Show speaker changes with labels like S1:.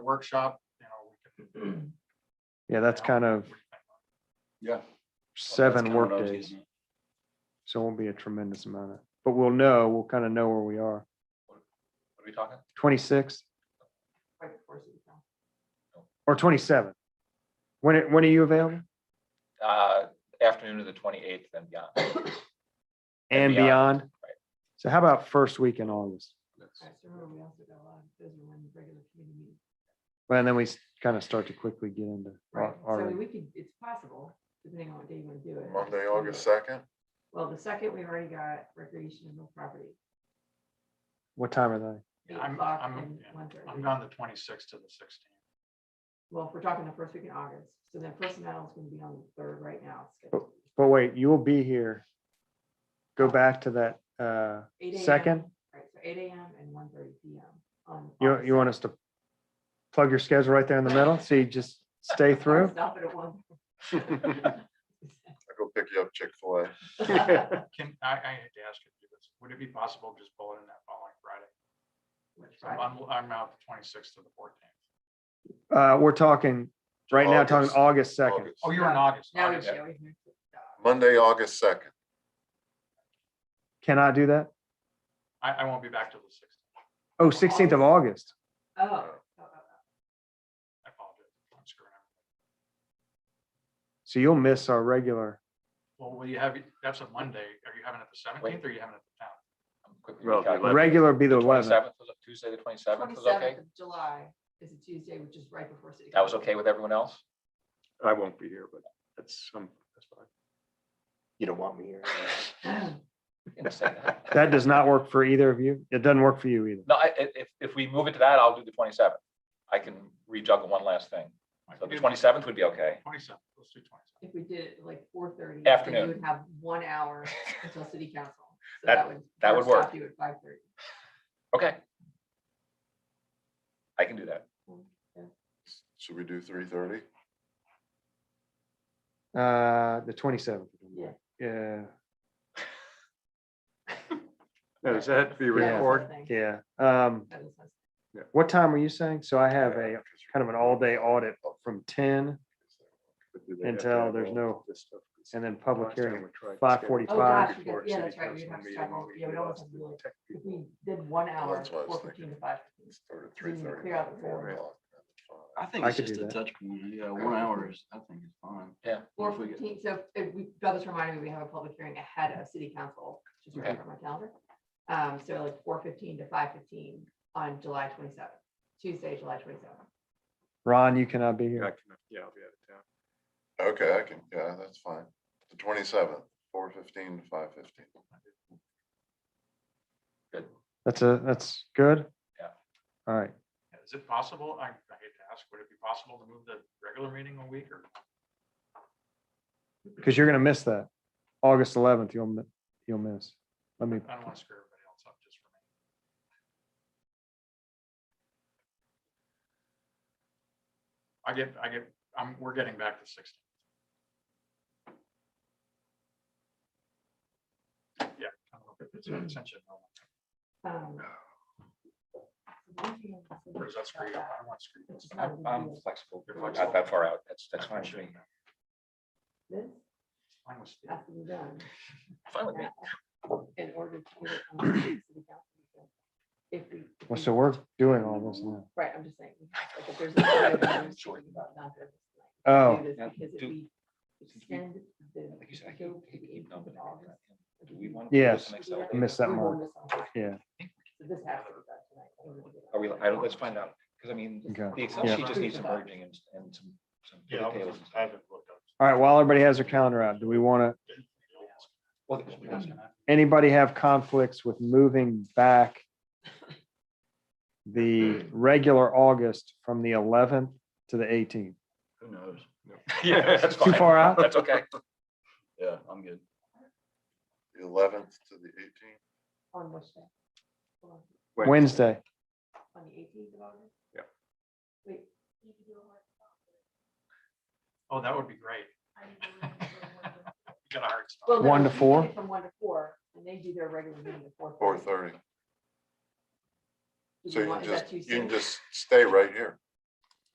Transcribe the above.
S1: workshop, you know, we can.
S2: Mm. Yeah, that's kind of
S3: Yeah.
S2: seven workdays, so it won't be a tremendous amount of, but we'll know, we'll kind of know where we are.
S3: What are we talking?
S2: Twenty-sixth or twenty-seventh? When, it- when are you available?
S3: Uh, afternoon of the twenty-eighth and beyond.
S2: And
S3: And
S2: beyond?
S3: beyond.
S2: So how about first week in August? Well, and then we kind of start to quickly get into.
S4: Right,
S2: our-
S4: so I
S2: our-
S4: mean, we could, it's possible, depending on what day you want to do it.
S5: Monday, August second,
S4: Well, the second, we've already got recreation and no property.
S2: What time are they?
S4: eight
S1: I'm,
S4: o'clock
S1: I'm,
S4: and
S1: yeah,
S4: 1:30.
S1: I'm gone the twenty-sixth to the sixteenth.
S4: Well, if we're talking the first week in August, so then personnel is going to be on the third right now. It's scheduled.
S2: But wait, you will be here. Go back to that, uh,
S4: 8 a.m.
S2: Second?
S4: Right, so eight AM and 1:30 PM on.
S2: you,
S4: August
S2: you want us to plug your schedule right there in the middle? So you just stay
S4: 2nd.
S2: through?
S4: Stop it at one.
S5: I go pick you up Chick-fil-A.
S1: Can, I, I had to ask you this, would it be possible to just bullet in that following Friday?
S4: Which
S1: So I'm, I'm out the twenty-sixth to the fourteenth.
S2: Uh, we're talking, right now, talking August second.
S5: August.
S1: Oh, you're in August.
S4: Now we
S1: August.
S4: should always move to-
S5: Monday, August second.
S2: Can I do that?
S1: I, I won't be back till the sixteenth.
S2: Oh, 16th of August.
S4: Oh, oh, oh, oh.
S1: I apologize. I'm screwing up.
S2: So you'll miss our regular.
S1: Well, will you have, that's a Monday. Are you having it the seventeenth or are you having it the tenth?
S3: Um,
S6: Well, the eleventh.
S2: Regular be the 11th.
S3: Seventh, Tuesday, the twenty-seventh was okay?
S4: 27th of July is a Tuesday, which is right before city.
S3: That was
S4: council.
S3: okay with everyone else?
S6: I won't be here, but that's, um, that's fine. You don't want me here.
S3: You can say that.
S2: That does not work for either of you. It doesn't work for you either.
S3: No, I, i- if, if we move it to that, I'll do the twenty-seventh. I can rejuggle one last thing. So the twenty-seventh would be okay.
S1: Twenty-seventh, let's do twenty-seventh.
S4: If we did it at like four thirty.
S3: Afternoon.
S4: You would have one hour until city council. So
S3: That-
S4: would
S3: that would
S4: stop You at five thirty.
S3: Okay. I can do that.
S5: Should we do three thirty?
S2: Uh, the 27th.
S4: Yeah.
S2: Yeah,
S6: Now, does that have to be
S2: Yeah.
S6: recorded?
S2: yeah. Um, what time were you saying? So I have a kind of an all day audit
S5: Oh,
S2: from 10 Until there's no- and then public hearing. 5:45.
S4: Oh, gosh,
S6: Before
S4: because- yeah,
S6: city
S4: that's right, we'd
S6: council
S4: have to
S6: meeting,
S4: stop all-
S6: we
S4: yeah, we'd
S6: did
S4: almost
S6: us
S4: have
S6: the
S4: to do like-
S6: tech
S4: If
S6: people.
S4: we did one hour,
S5: that's what I was
S4: four fifteen to
S5: thinking.
S4: five.
S5: Start at
S4: We
S5: three
S4: need to
S5: thirty.
S4: clear out the board.
S7: I think
S2: I
S7: it's
S2: could
S7: just
S2: do
S7: a
S2: that.
S7: touch point. Yeah, one hour is, I think is fine.
S3: Yeah.
S4: Four
S7: If we get-
S4: fifteen, so if we, that was reminding me, we have a public hearing ahead of city council, just
S3: Okay.
S4: remember my calendar. Um, so like four fifteen to five fifteen on July twenty seventh, Tuesday, July twenty seventh.
S2: Ron, you cannot be
S6: Yeah, I
S2: here.
S6: can- yeah, I'll be out of town.
S5: Okay, I can, yeah, that's fine. The twenty-seventh, four fifteen to five fifteen.
S2: That's a, that's good.
S3: Yeah.
S2: All right.
S1: Is it possible? I, I hate to ask, would it be possible to move the regular meeting a week or?
S2: Cause you're going to miss that. August 11th, you'll, mi- you'll miss. Let me,
S1: I don't want to screw everybody else up just for me. I get, I get, I'm, we're getting back to sixteen. Yeah. I don't know if it's an extension or not,
S4: Um,
S1: or is that screwed up? I don't want to screw this.
S3: I'm, I'm flexible.
S1: You're
S3: Not
S1: flexible.
S3: that far out. That's, that's fine. with me.
S1: Fine
S4: This
S1: with Steve.
S4: has to be done.
S3: Fine with me.
S4: in order to get it on the city council. agenda. If we. if
S2: well,
S4: we-
S2: so we're doing all this now.
S4: Right, I'm just saying, like, if there's. a lot of things
S3: Sure.
S4: that we don't know this night,
S2: Oh.
S4: do this
S3: yeah,
S4: Because if
S3: do-
S4: we extend the.
S3: Like you said, I hate- hate- hate
S4: the-
S3: numbing
S4: the August,
S3: it. Do we want?
S2: Yes.
S4: we're-
S2: Miss that
S4: we're
S2: mark.
S4: going this on.
S2: Yeah.
S4: So this has to be done tonight. in order to get it
S3: Are
S4: on
S3: we,
S4: the
S3: I,
S4: agenda.
S3: let's find out, because I mean,
S2: Okay.
S3: the Excel
S4: Yeah.
S3: sheet just needs some merging and, and some. some
S1: Yeah, I'll
S3: details
S1: just-
S3: and
S1: I
S3: stuff.
S1: haven't looked up.
S2: All right. While everybody has their calendar out, do we want to,
S3: Well,
S2: anybody have conflicts with moving back the regular August from the eleventh to the eighteenth?
S7: Who knows?
S3: Yeah, that's
S2: Too
S3: fine.
S2: far out?
S3: That's okay.
S7: Yeah, I'm good.
S5: The eleventh to the eighteenth.
S4: On which day? Hold on,
S2: Wednesday.
S4: On the eighteenth of August?
S6: Yeah.
S4: Wait.
S1: Oh, that would be great. You got a hard stop.
S4: Well, no,
S2: One to
S4: you do
S2: four?
S4: it From one to four, and they do their regular meeting at four.
S5: Four thirty.
S4: Do
S5: So you
S4: want-
S5: can
S4: is that
S5: just,
S4: too
S5: you
S4: soon?
S5: can just stay right here.